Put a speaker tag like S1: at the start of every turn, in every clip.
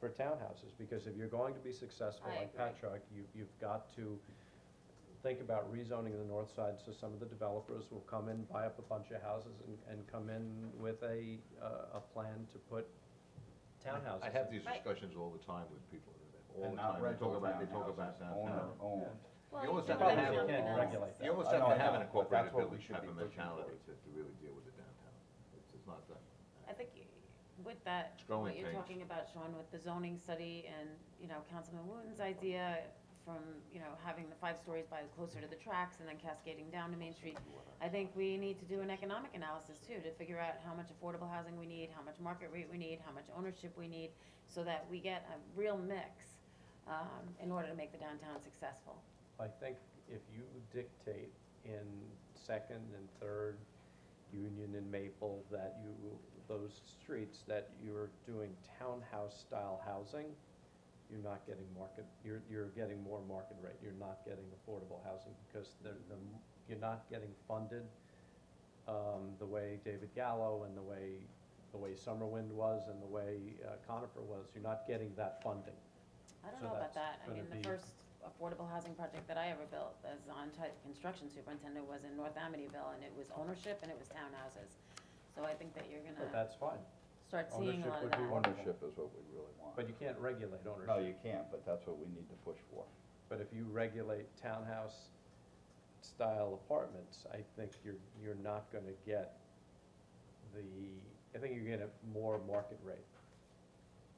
S1: for townhouses, because if you're going to be successful
S2: I
S1: in
S2: agree.
S1: Patchogue, you, you've got to think about rezoning the north side, so some of the developers will come in, buy up a bunch of houses and, and come in with a, uh, a plan to put townhouses.
S3: I have
S1: in.
S3: these
S2: Right.
S3: discussions all the time with people, all
S4: And
S3: the time, they
S4: not
S3: talk
S4: rental
S3: about, they talk about
S4: townhouses,
S3: that.
S4: owner
S3: No.
S4: owned.
S2: Well,
S3: You
S2: you
S3: always
S2: don't
S3: have to
S2: let
S3: have-
S2: someone
S1: you can't
S2: else.
S1: regulate
S3: You almost
S4: I
S3: have
S4: know,
S3: to
S4: I
S3: have an
S4: know, but that's
S3: incorporated
S4: what we
S3: building
S4: should
S3: type
S4: be
S3: of
S4: pushing
S3: mentality
S4: towards.
S3: to, to really deal with the downtown, it's, it's not that.
S2: I think you- with that,
S3: growing
S2: what you're
S3: pains.
S2: talking about, Sean, with the zoning study and, you know, Councilman Wooton's idea from, you know, having the five stories by closer to the tracks and then cascading down to Main Street, I think we need to do an economic analysis too, to figure out how much affordable housing we need, how much market rate we need, how much ownership we need, so that we get a real mix, um, in order to make the downtown successful.
S1: I think if you dictate in second and third Union and Maple that you, those streets that you're doing townhouse-style housing, you're not getting market, you're, you're getting more market rate, you're not getting affordable housing because the, the, you're not getting funded um, the way David Gallo and the way, the way Summerwind was and the way uh, Conifer was, you're not getting that funding.
S2: I don't
S1: So
S2: know about
S1: that's
S2: that. I mean,
S1: gonna
S2: the
S1: be-
S2: first affordable housing project that I ever built as on type construction superintendent was in North Amityville and it was ownership and it was townhouses. So I think that you're
S1: But
S2: gonna
S1: that's fine,
S2: start seeing a
S1: ownership
S2: lot of
S1: would
S2: that.
S1: be one-
S4: Ownership is what we really want.
S1: but you can't regulate ownership.
S4: No, you can't, but that's what we need to push for.
S1: But if you regulate townhouse-style apartments, I think you're, you're not gonna get the, I think you're gonna get more market rate.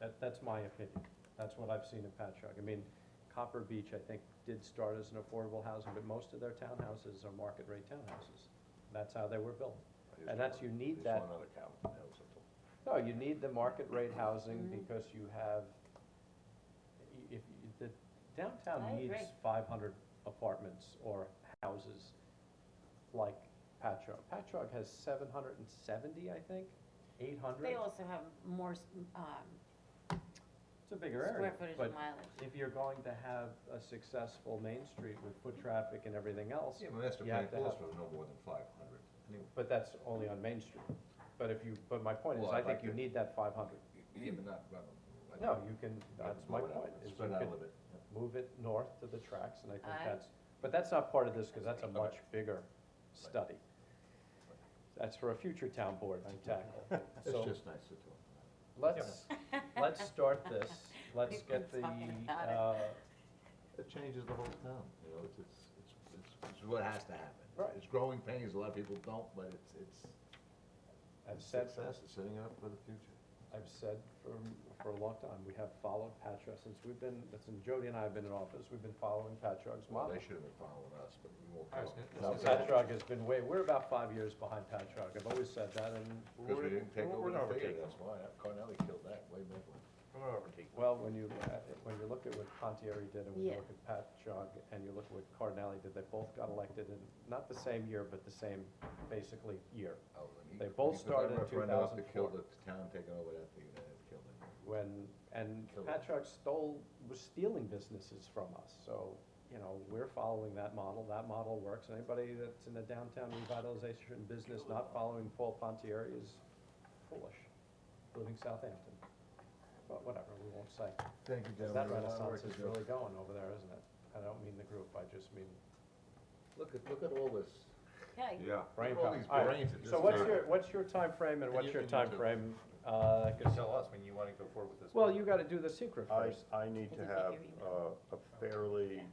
S1: That, that's my opinion. That's what I've seen in Patchogue. I mean, Copper Beach, I think, did start as an affordable housing, but most of their townhouses are market rate townhouses. That's how they were built. And that's- you need that.
S3: Another cow, that was a-
S1: No, you need the market rate housing
S2: Mm-hmm.
S1: because you have, i- if, you- the
S2: I
S1: downtown
S2: agree.
S1: needs five hundred apartments or houses like Patchogue. Patchogue has seven hundred and seventy, I think, eight hundred.
S2: They also have more, s- um,
S1: It's a bigger area.
S2: square footage and
S1: But
S2: mileage.
S1: if you're going to have a successful Main Street with foot
S2: Mm-hmm.
S1: traffic and everything else,
S3: Yeah, my master
S1: You have
S3: plan
S1: to
S3: calls
S1: have-
S3: for no more than five hundred, anyway.
S1: but that's only on Main Street. But if you, but my point is,
S3: Well,
S1: I
S3: I'd
S1: think
S3: like
S1: you
S3: to-
S1: need that five hundred.
S3: Yeah, but not, but. I-
S1: No, you can,
S3: I-
S1: that's my
S3: blow it out,
S1: point, is you
S3: Spread out a
S1: can-
S3: little bit.
S1: move it north to the tracks, and I think
S2: Aye.
S1: that's, but that's not part of this, because that's a
S3: Okay.
S1: much bigger study. That's for a future town board to tackle.
S3: It's
S1: So
S3: just nice to talk about.
S1: let's, let's start this, let's
S2: We've been
S1: get the,
S2: talking about it.
S1: uh,
S3: It changes the whole town, you know, it's, it's, it's, it's, it's what has to happen.
S1: Right.
S3: It's growing pains, a lot of people don't, but it's, it's.
S1: I've
S3: it's
S1: said,
S3: Success, it's setting up for the future.
S1: I've said for, for a long time, we have followed Patchogue since we've been, since Jody and I have been in office, we've been following Patchogue's
S3: Well,
S1: model.
S3: they should have been following us, but we won't.
S1: I was Now,
S3: follow.
S1: Patchogue has been way, we're about five years behind Patchogue, I've always said that, and we're,
S3: Because we didn't take
S1: we're
S3: over
S1: gonna
S3: the
S1: overtake
S3: theater,
S1: them.
S3: that's why, Carnelli killed that way back when.
S1: Well, when you, uh, when you look at what Pontieri did and when you
S2: Yeah.
S1: look at Pat Jog and you look at what Cardinale did, they both got elected in, not the same year, but the same basically year.
S3: Oh, when he-
S1: They both
S3: because
S1: started
S3: that
S1: in
S3: referendum up to
S1: 2004.
S3: kill the town taking over that theater, it killed it.
S1: When, and
S3: Killer.
S1: Pat Jog stole, was stealing businesses from us, so, you know, we're following that model, that model works. Anybody that's in the downtown revitalization business not following Paul Pontieri is foolish, including Southampton. But whatever, we won't say.
S3: Thank you,
S1: Because that
S3: gentlemen. There's a lot of
S1: renaissance is
S3: work to do.
S1: really going over there, isn't it? I don't mean the group, I just mean
S3: Look at, look at all this.
S2: Okay,
S3: Yeah.
S1: brain
S3: All
S1: power.
S3: these
S1: All right,
S3: brains at this
S1: So what's
S3: time.
S1: your, what's your timeframe and what's
S3: you-
S1: your
S3: and you too.
S1: timeframe? Uh, 'cause-
S5: Just tell us when you wanna go forward with this.
S1: well, you gotta do the secret
S6: I,
S1: first.
S6: I need to
S2: Did you get
S6: have
S2: your email?
S6: uh, a fairly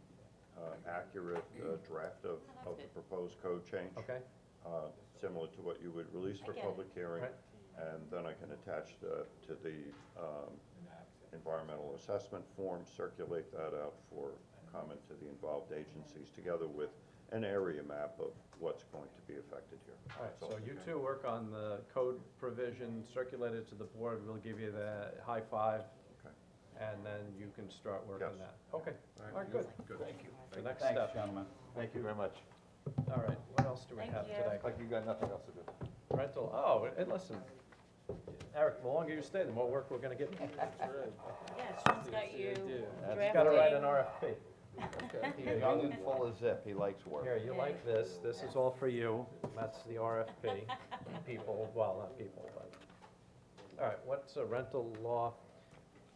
S6: uh, accurate uh, draft of,
S2: Mm-hmm. that's
S6: of the
S2: good.
S6: proposed code change.
S1: Okay,
S6: uh, Similar to what you would release
S2: I
S6: for
S2: get it.
S6: public hearing.
S1: Right.
S6: And then I can attach the, to the um, environmental assessment form, circulate that out for comment to the involved agencies, together with an area map of what's going to be affected here.
S1: all right,
S6: That's all.
S1: so you two work on the code provision, circulate it to the board, we'll give you the high five.
S6: Okay.
S1: And then you can start working
S6: Yes.
S1: that. Okay, all right, good.
S3: Good, thank you.
S1: The next
S4: Thanks,
S1: step.
S4: gentlemen.
S3: Thank you very much.
S1: All right, what else do we
S2: Thank
S1: have
S2: you.
S1: today?
S3: Like you got nothing else to do.
S1: Rental, oh, and listen, Eric, the longer you stay, the more work we're gonna give you.
S2: yeah, Sean's got you
S1: You gotta write an
S2: drafting.
S1: RFP.
S4: He's young and full of zip, he likes work.
S1: Here, you like this, this is all for you, that's the RFP, people, well, not people, but. All right, what's a rental law